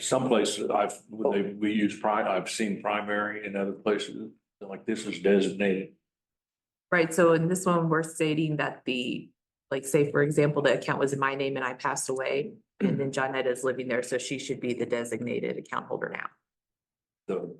Some places I've, when they, we use pri, I've seen primary in other places, like this is designated. Right, so in this one, we're stating that the, like, say, for example, the account was in my name and I passed away. And then Johnetta is living there, so she should be the designated account holder now. The,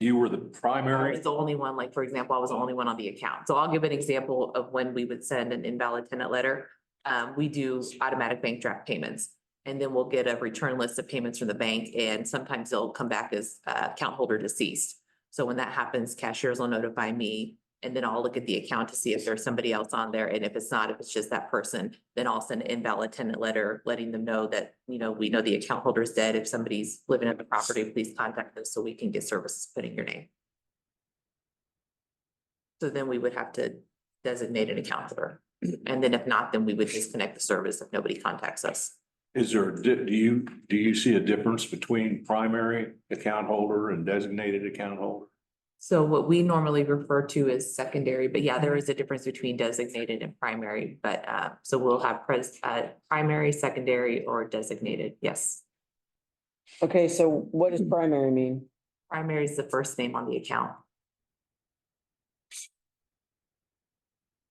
you were the I primary. was the only one, like, for example, I was the only one on the account. So I'll give an example of when we would send an invalid tenant letter. Um, we do automatic bank draft payments. And then we'll get a return list of payments from the bank and sometimes they'll come back as uh account holder deceased. So when that happens, cashiers will notify me and then I'll look at the account to see if there's somebody else on there. And if it's not, if it's just that person, then I'll send an invalid tenant letter, letting them know that, you know, we know the account holder is dead. If somebody's living at the property, please contact us so we can get services put in your name. So then we would have to designate an account holder. And then if not, then we would disconnect the service if nobody contacts us. Is there, a di- do you, do you see a difference between primary account holder and designated account holder? So what we normally refer to as secondary, but yeah, there is a difference between designated and primary, but uh, so we'll have pres- uh, primary, secondary, or designated, yes. Okay, so what Hmm. does primary mean? Primary is the first name on the account.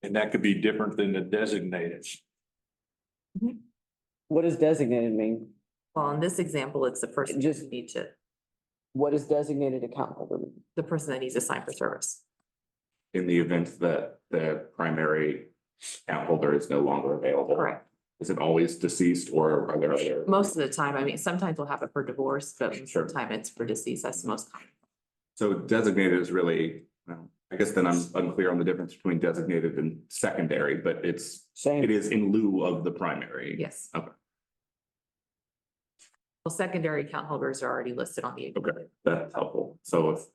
And that could be different than the designated. What does designated mean? Well, in this example, it's the person Just- who needs to, What does designated account holder mean? the person that needs to sign for service. in the event that the primary account holder is no longer available. Correct. Is it always deceased or are there other? Most of the time, I mean, sometimes we'll have it for divorce, but most Sure. of the time it's for deceased. That's the most common. So designated is really, well, I guess then I'm unclear on the difference between designated and secondary, but it's, it Same, is in lieu of the primary. Yes. Okay. Well, secondary account holders are already listed on the, Okay, that's helpful. So if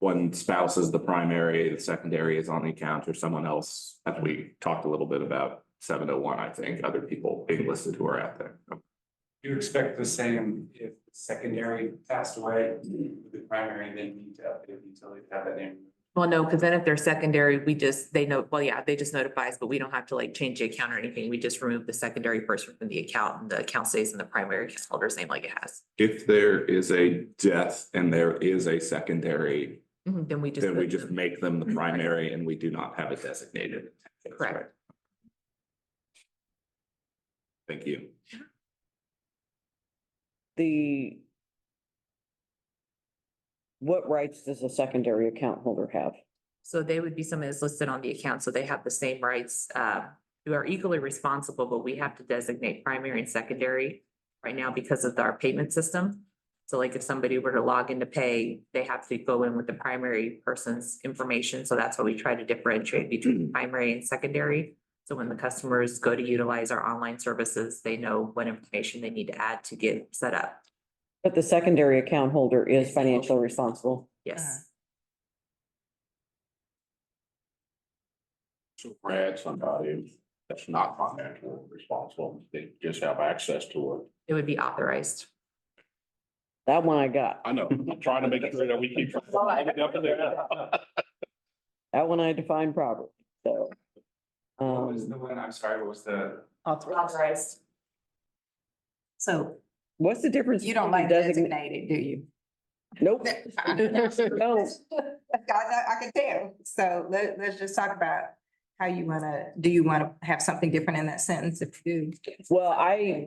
one spouse is the primary, the secondary is on the account or someone else, as we talked a little bit about seven oh one, I think, other people being listed who are out there. You expect the same if secondary passed away, the primary then need to update the utility to have that name. well, no, because then if they're secondary, we just, they know, well, yeah, they just notify us, but we don't have to like change the account or anything. We just remove the secondary person from the account and the account stays in the primary account holder's name like it has. If there is a death and there is a secondary, Mhm, Then we just. Mm-hmm. then we put just them- make them the primary and we do not have a designated. That's Correct. right. Thank you. the what rights does a secondary account holder have? So they would be someone that's listed on the account, so they have the same rights, uh, who are equally responsible, but we have to designate primary and secondary right now because of our payment system. So like if somebody were to log in to pay, they have to go in with the primary person's information, so that's why we try to differentiate between primary and secondary. So when the customers go to utilize our online services, they know what information they need to add to get set up. But the secondary account holder is financially responsible. Yes, So Brad, somebody that's not financially responsible, they just have access to it. it would be authorized. That one I got. I know, I'm trying to make sure that we keep. That one I defined properly, so. What was Um, the one, I'm sorry, what was the? Authorized. So what's the difference? you don't between like design- designated, do you? Nope. I know, No, I can tell. So let, let's just talk about how you wanna, do you wanna have something different in that sentence if you do? well, I,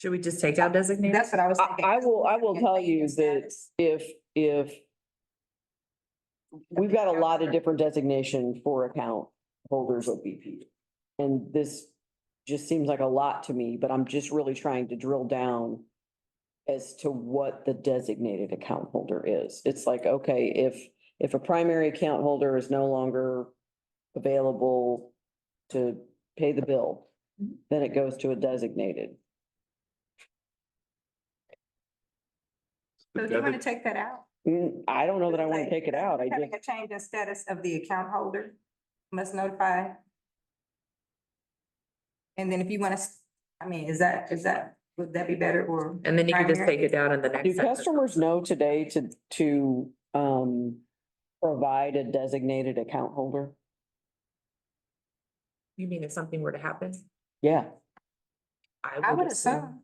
Should we just take out designated? That's what I was I- thinking. I will- I will tell you that- if, if We've got a lot of different designation for account holders of BP. And this just seems like a lot to me, but I'm just really trying to drill down as to what the designated account holder is. It's like, okay, if, if a primary account holder is no longer available to pay the bill, then it goes to a designated. So do you wanna take that out? Mm, I don't know that I want to take it out. I just. Having a change in status of the account holder must notify. And then if you wanna, s- I mean, is that, is that, would that be better or? And then you can just Primary. take it down in the next. Do sentence. customers know today to, to, um, provide a designated account holder? You mean if something were to happen? Yeah, I would assume,